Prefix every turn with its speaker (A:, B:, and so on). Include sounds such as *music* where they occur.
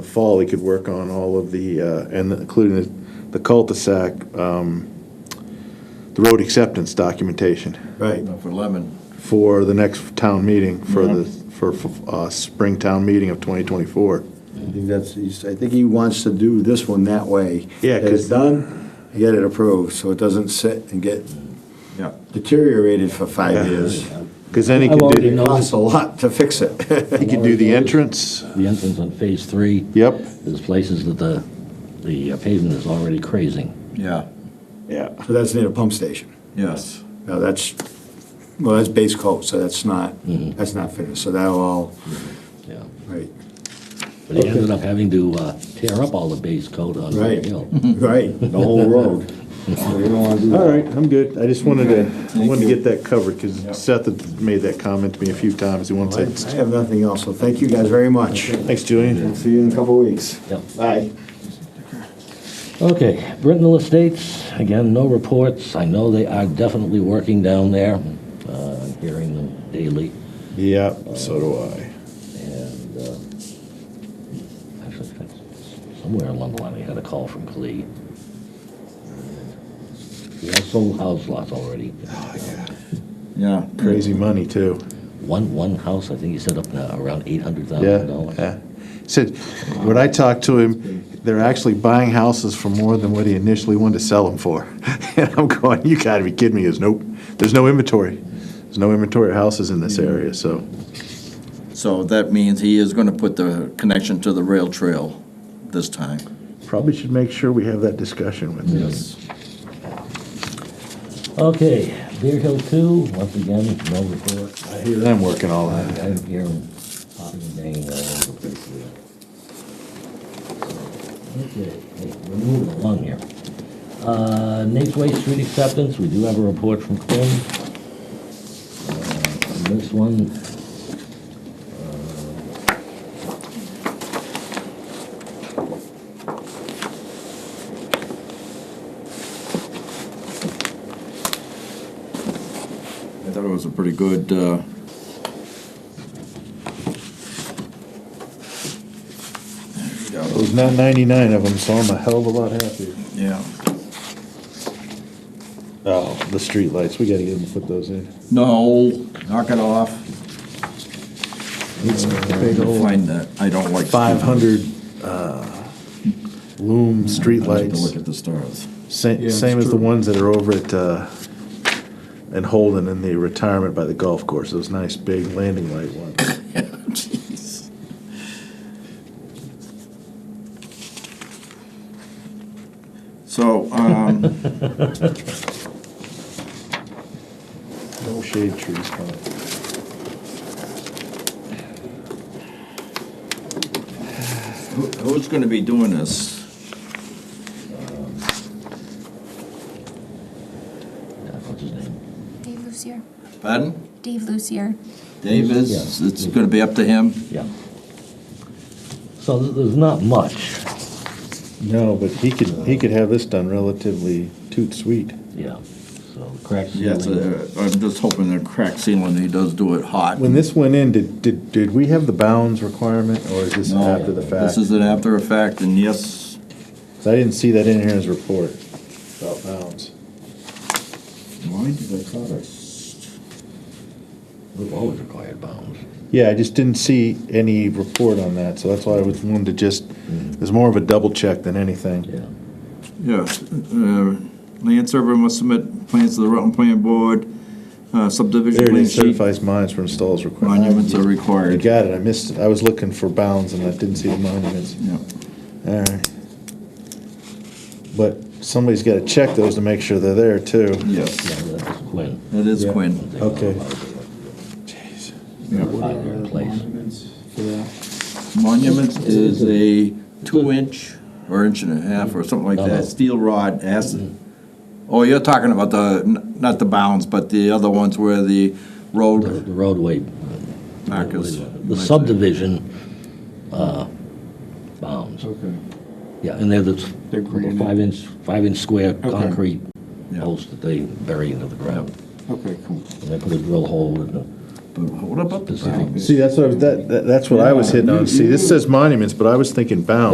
A: fall, he could work on all of the, uh, and including the- the cul-de-sac, um, the road acceptance documentation
B: Right.
C: For Lemon,
A: for the next town meeting, for the, for uh, spring town meeting of 2024.
B: I think that's, he's- I think he wants to do this one that way.
A: Yeah,
B: Get
A: 'cause-
B: it done, get it approved, so it doesn't sit and get
C: yeah.
B: deteriorated for five years.
A: Because then he
D: I've
A: could
D: already
A: do,
D: know-
B: Costs a lot to fix it. *laughs*
A: he could do the entrance,
D: The entrance on Phase Three,
A: yep.
D: there's places that the, the uh, pavement is already crazing.
C: Yeah,
A: Yeah.
B: So that's near the pump station.
C: yes.
B: Now, that's, well, that's base coat, so that's not,
A: Mm-hmm.
B: that's not finished, so that'll all,
D: Yeah,
B: right,
D: But he ended up having to uh, tear up all the base coat on the
B: Right.
D: hill.
B: right,
A: *laughs*
B: the whole road. So you don't wanna do
A: Mm. All
B: that.
A: right, I'm good. I just wanted to, I
C: Thank
A: wanted to
C: you.
A: get that covered, because Seth had made that comment to me a few times. He once
B: I
A: said,
B: have nothing else, so thank you guys very much.
A: thanks, Julian.
B: See you in a couple of weeks.
D: Yep.
B: Bye.
D: Okay, Brittenell Estates, again, no reports. I know they are definitely working down there. Uh, I'm hearing them daily.
A: Yeah, so do I.
D: And uh, actually, that's- somewhere along the line, I had a call from Clee. We have sold house lots already.
C: Yeah,
A: Crazy money, too.
D: One, one house, I think you said up now around eight hundred thousand
A: Yeah,
D: dollars.
A: yeah. Said, when I talked to him, they're actually buying houses for more than what he initially wanted to sell them for. *laughs* And I'm going, you gotta be kidding me. He goes, nope, there's no inventory. There's no inventory of houses in this area, so.
C: so that means he is gonna put the connection to the rail trail this time.
A: Probably should make sure we have that discussion with him.
D: Okay, Deer Hill Two, once again, no report.
A: I hear them working all
D: I,
A: that.
D: I hear them popping and banging all over the place there. Okay, hey, we're moving along here. Uh, Nate's Way Street Acceptance, we do have a report from Quinn. Uh, on This one,
C: I thought it was a pretty good, uh,
A: It was not 99 of them, so I'm a hell of a lot happier.
C: yeah.
A: Oh, the streetlights, we gotta get them to put those in.
C: No, knock it off.
A: Big old
C: Find that, I don't like.
A: 500 uh, loom
C: I like to look
A: streetlights,
C: at the stars.
A: same,
B: it's
A: same as the
B: true.
A: ones that are over at, uh, and Holden in the retirement by the golf course, those nice big landing light ones.
C: Jeez. So, um, *laughs*
A: No shade trees coming.
C: Who- Who's gonna be doing this?
D: uh, what's his name?
E: Dave Lucier.
C: Pardon?
E: Dave Lucier.
C: Dave is,
D: Yeah.
C: it's gonna be up to him?
D: Yeah. So th- there's not much,
A: No, but he could, he could have this done relatively toot sweet.
D: yeah, so crack
C: Yeah,
D: ceiling.
C: it's a- I'm just hoping the crack ceiling, he does do it hot.
A: When this went in, did, did, did we have the bounds requirement, or is this
C: No,
A: after the fact?
C: This is an after effect, and yes,
A: 'Cause I didn't see that in here in his report about bounds.
C: why did I call it?
D: We've always required bounds.
A: Yeah, I just didn't see any report on that, so that's why I was wanted to just,
C: Mm-hmm.
A: it was more of a double check than anything.
D: Yeah.
C: Yeah, uh, land surveyor must submit plans to the Rutland Plan Board, uh, subdivision
A: There it
C: plan
A: is,
C: sheet,
A: certifies mines for installs required.
C: monuments are
A: You
C: required.
A: got it, I missed it, I was looking for bounds and I didn't see the monuments.
C: Yeah,
A: Alright. But somebody's gotta check those to make sure they're there too.
C: yes,
D: Yeah, that's Quinn.
C: that is
A: Yeah.
C: Quinn.
A: Okay.
C: Jeez.
D: Five-year in place.
C: Monuments is a two-inch or inch and a half or something like
D: No, no.
C: that, steel rod has, oh, you're talking about the, n- not the bounds, but the other ones where the
D: The
C: road
D: the roadway,
C: markers.
D: the subdivision uh, bounds.
F: Okay.
D: Yeah, and they're the s-
F: They're granite.
D: five-inch, five-inch square concrete
C: Yeah.
D: posts that they bury into the ground.
F: Okay, cool.
D: And they put a drill hole in the
C: But what about the
D: Specific
C: bounds?
A: See, that's what, I was- that, that- that's what I was hitting on. See, this says monuments, but I was thinking bounds.